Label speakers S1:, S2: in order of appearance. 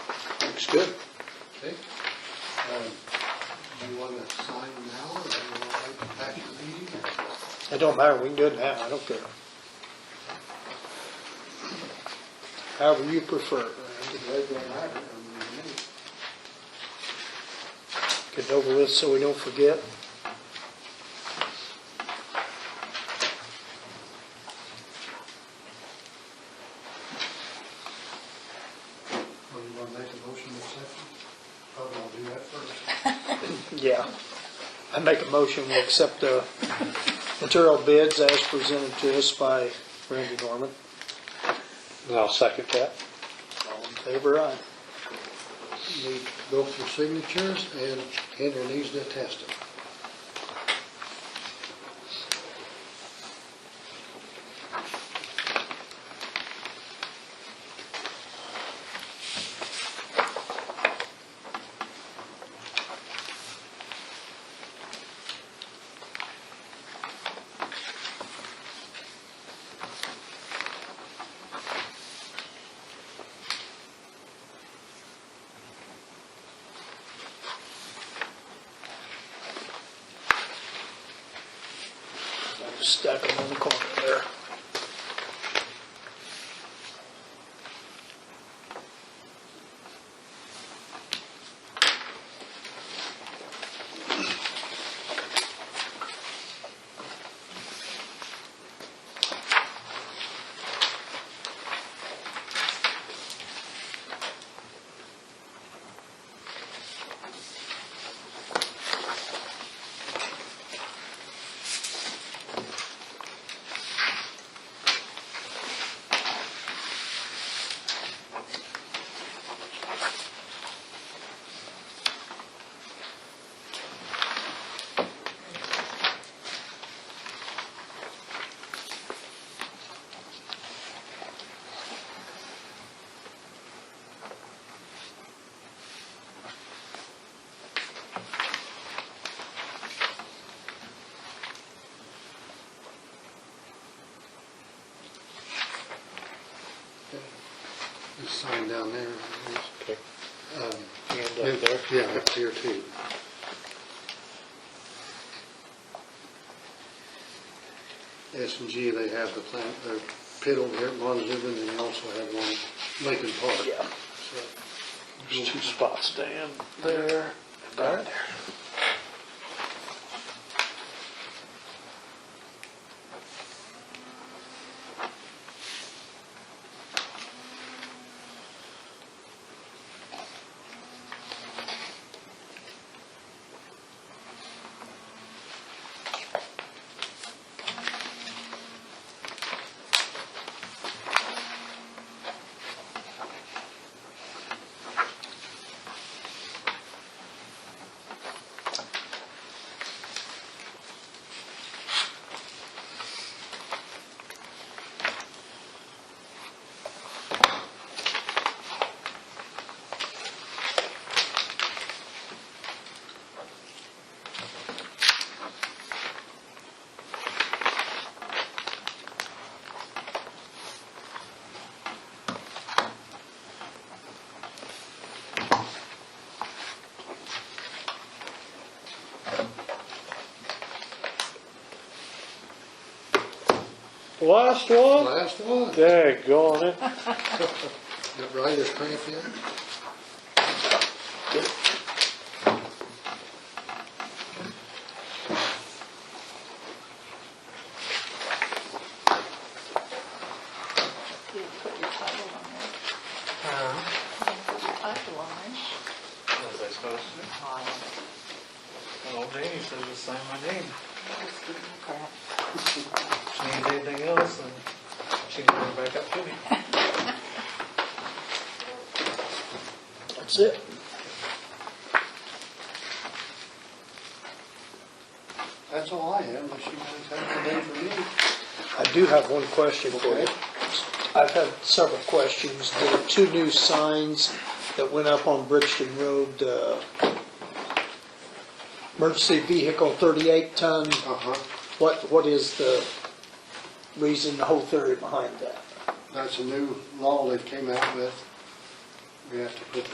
S1: Understood. Okay. Um, Do you want to sign now or do you want to wait back to the meeting?
S2: It don't matter, we can do it now, I don't care. However you prefer,
S1: I could wait that out. I mean,
S2: get it over with so we don't forget.
S1: Or you want to make a motion to accept it? Probably I'll do that first.
S2: Yeah. I make a motion, we accept the material bids as presented to us by Randy Norman.
S3: And I'll second that.
S2: All in favor, aye.
S1: Need to go for signatures and Henry needs to attest it.
S2: Just Stack them in the corner there.
S1: Just sign down there.
S3: Okay.
S1: Um,
S3: And up there.
S1: Yeah, up here too. S and G, they have the plant, their pit over here at Montezuma, and they also have one at Lincoln Park.
S2: Yeah. There's two spots, Dan, there, and back there.
S3: Last one?
S1: Last one, got
S3: Daggone it.
S1: Ryder's cramp yet?
S4: You didn't put your title on there. You didn't put your title on there.
S5: Was I supposed to? Well, Danny said to sign my name.
S4: Just give me crap.
S5: She needed anything else, and she can bring it back up to me.
S2: That's it.
S1: That's all I have, unless you guys have anything for me.
S2: I do have one question for you.
S1: Okay.
S2: I've had several questions. There were two new signs that went up on Brixton Road, uh, emergency vehicle 38 ton.
S1: Uh-huh,
S2: What, what is the reason, the whole theory behind that?
S1: that's a new law they came out with. We have to put